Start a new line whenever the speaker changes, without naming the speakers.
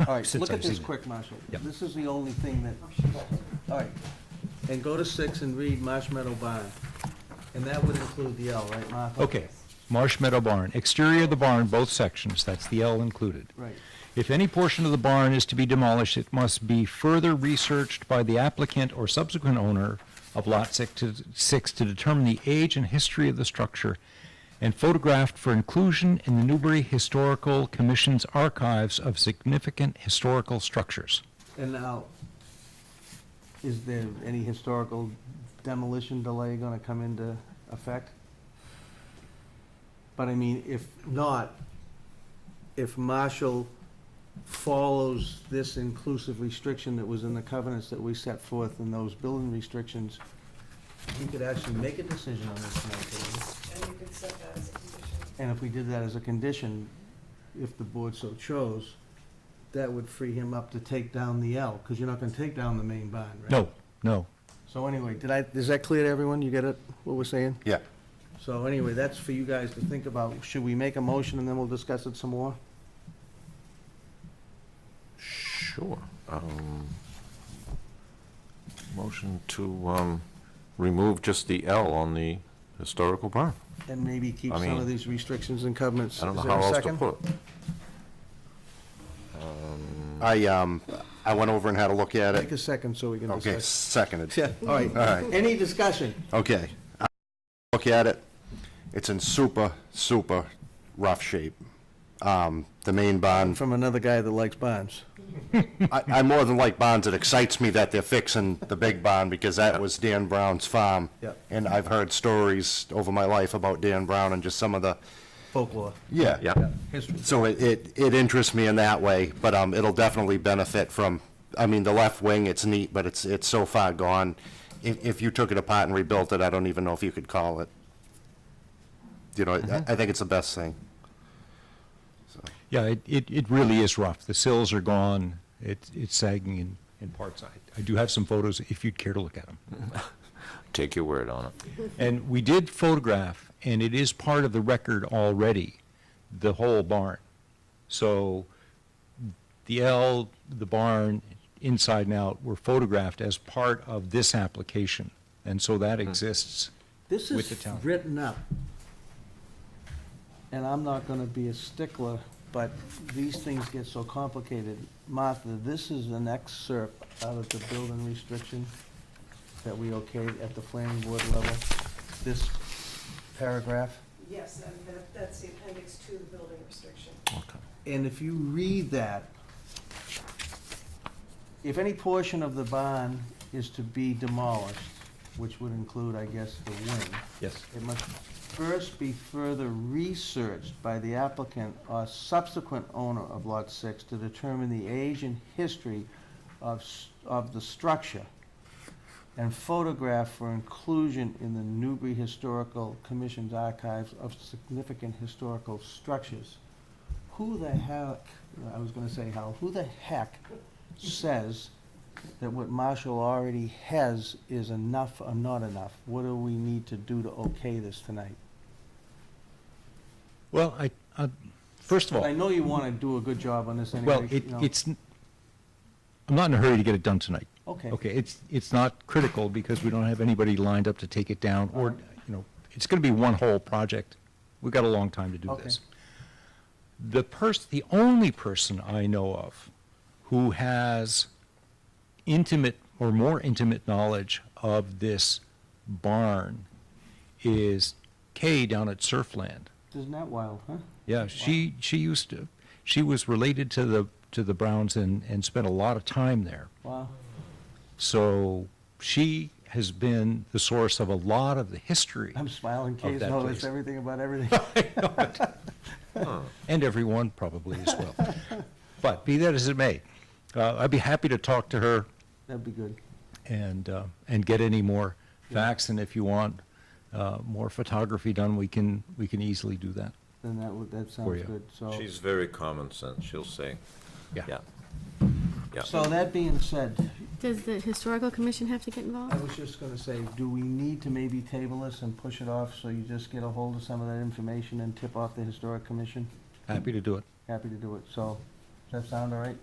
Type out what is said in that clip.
All right,
Since
look at
I've
this
seen it.
quick, Marshall.
Yep.
This is the only thing that, all right. And go to six and read Marsh Meadow Barn. And that would include the L, right, Martha?
Okay, Marsh Meadow Barn, exterior of the barn, both sections, that's the L included.
Right.
If any portion of the barn is to be demolished, it must be further researched by the applicant or subsequent owner of Lot six to- 6 to determine the age and history of the structure and photographed for inclusion in the Newbury Historical Commission's archives of significant historical structures.
And now, is there any historical demolition delay gonna come into effect? But I mean, if not, if Marshall follows this inclusive restriction that was in the covenants that we set forth in those building restrictions, we could actually make a decision on this tonight, couldn't we?
And you could set that as a condition.
And if we did that as a condition, if the board so chose, that would free him up to take down the L, because you're not gonna take down the main barn, right?
No, no,
So anyway, did I, is that clear to everyone? You get it, what we're saying?
Yeah.
So anyway, that's for you guys to think about. Should we make a motion and then we'll discuss it some more?
Sure. Um, Motion to um, remove just the L on the historical barn.
And maybe keep
I
some of
mean,
these restrictions and covenants?
I don't know
Is there
how
a
else to
second?
put it.
I, um, I went over and had a look at
Take
it.
a second so we can
Okay,
discuss.
seconded.
Yeah, all
All
right.
right.
Any discussion?
Okay. I Look at it. It's in super, super rough shape. Um, the main bond,
From another guy that likes bonds.
I, I more than like bonds. It excites me that they're fixing the big bond because that was Dan Brown's farm.
Yeah.
And I've heard stories over my life about Dan Brown and just some of the,
Folklore,
yeah.
Yeah.
history.
So it, it, it interests me in that way, but, um, it'll definitely benefit from, I mean, the left wing, it's neat, but it's, it's so far gone. If, if you took it apart and rebuilt it, I don't even know if you could call it. You know, I, I think it's the best thing.
yeah, it, it, it really is rough. The sills are gone, it, it's sagging in, in parts. I, I do have some photos if you'd care to look at them.
Take your word on it.
And we did photograph, and it is part of the record already, the whole barn. So the L, the barn, inside and out, were photographed as part of this application. And so that
Hmm.
exists.
This
with the
is
town.
written up. And I'm not gonna be a stickler, but these things get so complicated. Martha, this is an excerpt out of the building restriction that we okayed at the planning board level, this paragraph.
Yes, and that, that's the appendix to the building restriction.
Okay.
And if you read that, if any portion of the barn is to be demolished, which would include, I guess, the wing,
Yes.
It must first be further researched by the applicant or subsequent owner of Lot 6 to determine the age and history of, s- of the structure and photograph for inclusion in the Newbury Historical Commission's archives of significant historical structures. Who the heck, I was gonna say Hal, who the heck says that what Marshall already has is enough or not enough? What do we need to do to okay this tonight?
Well, I, I- first of
I
all,
know you want to do a good job on this anyway.
well, it,
you know.
it's, n- I'm not in a hurry to get it done tonight.
Okay.
Okay, it's, it's not critical because we don't have anybody lined up to take it down or, you know, it's going to be one whole project. We've got a long time to do
Okay.
this. The person, the only person I know of who has intimate or more intimate knowledge of this barn is Kay down at Surfland.
Isn't that wild, huh?
Yeah, she, she used to, she was related to the, to the Browns and, and spent a lot of time there.
Wow.
So she has been the source of a lot of the history
I'm smiling, Kay's
that
noticed
place.
everything about everything.
and everyone probably as well. But be that as it may, uh, I'd be happy to talk to her
That'd be good.
and, uh, and get any more facts. And if you want uh, more photography done, we can, we can easily do that.
Then that would, that sounds
you.
good, so.
She's very common sense, she'll say. Yeah. Yeah.
So that being said,
Does the historical commission have to get
I
involved?
was just gonna say, do we need to maybe table this and push it off so you just get a hold of some of that information and tip off the historic commission?
Happy to do it.
Happy to do it, so, does that sound all right?